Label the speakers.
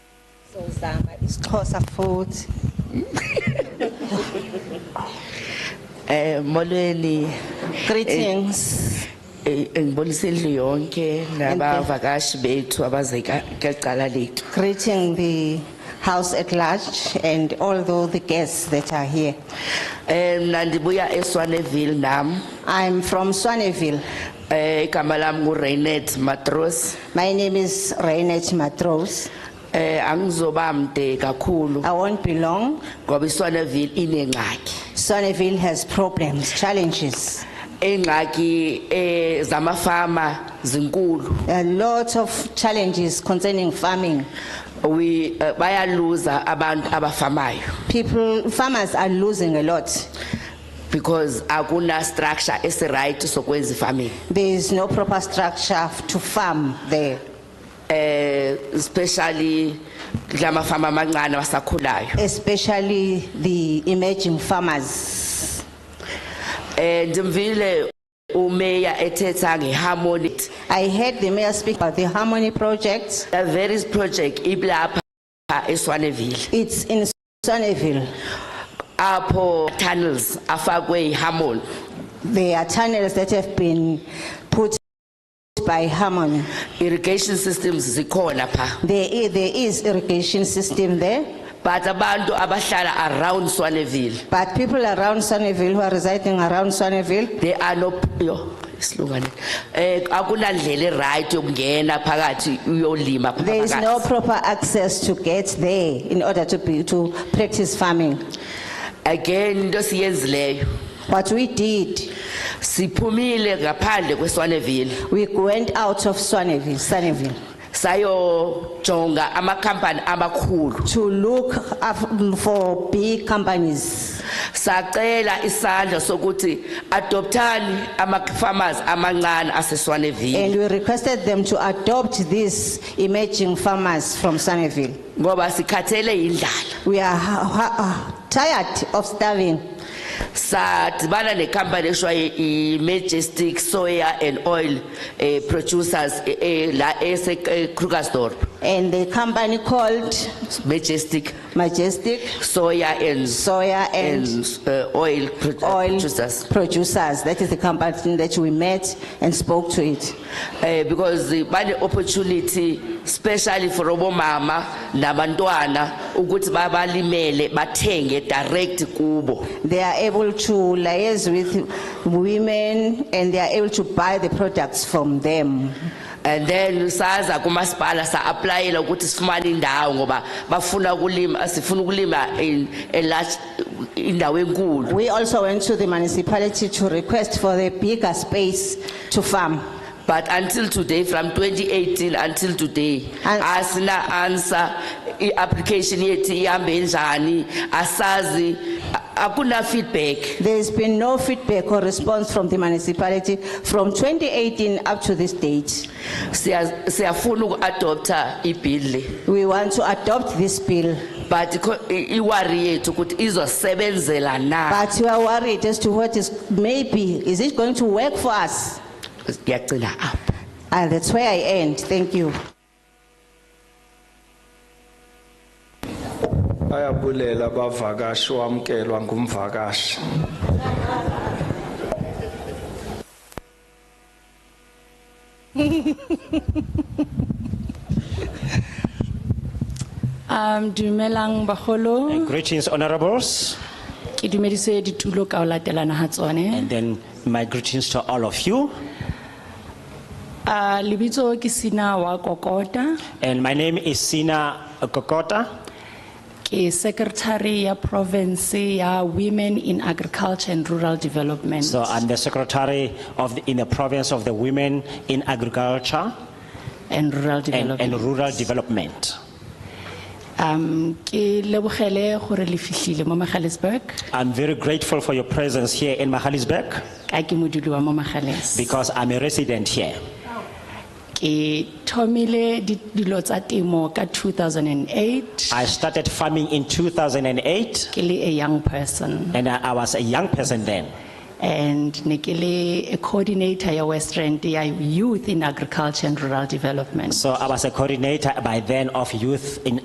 Speaker 1: Sizozama isiXhosa futhi.
Speaker 2: Eh molweni
Speaker 1: Greetings.
Speaker 2: Eh, ngibonisa indlu yonke nabavakashi bethu abazeka kecala lethu.
Speaker 1: Greeting the house at large and although the guests that are here.
Speaker 2: Eh mina ndibuya eSwaneville nam.
Speaker 1: I'm from Swaneville.
Speaker 2: Eh igama lami nguRenet Matros.
Speaker 1: My name is Rainet Matros.
Speaker 2: Eh angizoba mde kakhulu
Speaker 1: I won't be long.
Speaker 2: ngoba iSwaneville inengxaki.
Speaker 1: Swaneville has problems, challenges,
Speaker 2: Engxaki eh zamafama zinkulu.
Speaker 1: a lot of challenges concerning farming.
Speaker 2: We eh, bayaluza abantu abafamayo
Speaker 1: People, farmers are losing a lot.
Speaker 2: because akuna structure esiright sokwenza farming.
Speaker 1: There is no proper structure to farm there,
Speaker 2: eh especially kama fama amancane wasakhulayo
Speaker 1: especially the emerging farmers.
Speaker 2: eh ndimvile umeya ethetha ngeharmony
Speaker 1: I heard the mayor speak about the Harmony Project.
Speaker 2: the various project iblapha eSwaneville
Speaker 1: It's in Swaneville.
Speaker 2: apho tunnels afakwe iharmony
Speaker 1: There are tunnels that have been put by Harmony.
Speaker 2: irrigation systems zikhona pha
Speaker 1: There i- there is irrigation system there,
Speaker 2: but abantu abahlala around Swaneville
Speaker 1: but people around Swaneville who are residing around Swaneville,
Speaker 2: they are no yo isilungane eh akunandlela eright yokungena phakathi uyolima pha
Speaker 1: there is no
Speaker 2: phakathi
Speaker 1: proper access to get there in order to be, to practice farming.
Speaker 2: again into siyenzileyo
Speaker 1: What we did,
Speaker 2: siphumile ngaphandle kweSwaneville
Speaker 1: we went out of Swaneville, Swaneville
Speaker 2: sayojonga amakhampani amakhulu
Speaker 1: to look af- for big companies.
Speaker 2: sacela isandla sokuthi adoptani ama-farmers amancane aseswaneville
Speaker 1: And we requested them to adopt these emerging farmers from Sunnyvale.
Speaker 2: ngoba sikhathele yindlala
Speaker 1: We are ha- ha- ah, tired of starving.
Speaker 2: sadibana nekhampani eshwa i-majestic soya and oil eh, producers eh, eh, la esekrugersdorp
Speaker 1: And the company called
Speaker 2: majestic
Speaker 1: Majestic
Speaker 2: soya and
Speaker 1: Soya and
Speaker 2: and uh, oil produ-
Speaker 1: Oil
Speaker 2: producers
Speaker 1: Producers. That is the company that we met and spoke to it.
Speaker 2: eh because eh, bane opportunity especially for obomama nabantwana ukuthi babalimele bathenge direct kubo
Speaker 1: They are able to liaise with women and they are able to buy the products from them.
Speaker 2: and then saza kumasipala sa-aplayela ukuthi sifumane indawo ngoba bafuna ukulima sifuna ukulima in- a large indawo enkulu
Speaker 1: We also went to the municipality to request for the bigger space to farm.
Speaker 2: but until today from 2018 until today
Speaker 1: And-
Speaker 2: asina answer i-application yethu ihambe njani asazi a- akuna feedback
Speaker 1: There's been no feedback or response from the municipality from 2018 up to this date.
Speaker 2: Siya- siyafuna uku-adoptha ibill le
Speaker 1: We want to adopt this bill,
Speaker 2: but ikho- i- iwari yethu ukuthi izosebenzela na
Speaker 1: but we are worried as to what is, maybe, is it going to work for us?
Speaker 2: ngiyagcina apho
Speaker 1: And that's where I end, thank you.
Speaker 3: bayabulela abavakashi wamkelwa ngumvakashi
Speaker 4: Um dumelang bagolo
Speaker 5: Greetings, honorables,
Speaker 4: ke dumedise ditulo ka o latelana ha tsone
Speaker 5: and then my greetings to all of you.
Speaker 4: uh lebitso ke sina wa kokota
Speaker 5: And my name is Sina Kokota.
Speaker 4: ke secretary ya province ya women in agriculture and rural development
Speaker 5: So I'm the secretary of the, in the province of the women in agriculture
Speaker 4: and rural
Speaker 5: and, and
Speaker 4: development
Speaker 5: rural development.
Speaker 4: um ke lebogele gore le fihlile mo magalisburg
Speaker 5: I'm very grateful for your presence here in Mahalisburg
Speaker 4: ka ke modudi wa mo magales
Speaker 5: because I'm a resident here.
Speaker 4: ke thomile di- dilo tsa temo ka 2008
Speaker 5: I started farming in 2008
Speaker 4: ke le a young person
Speaker 5: and I, I was a young person then.
Speaker 4: and Nikili, a coordinator ya West Rand ya Youth in Agriculture and Rural Development.
Speaker 5: So I was a coordinator by then of youth in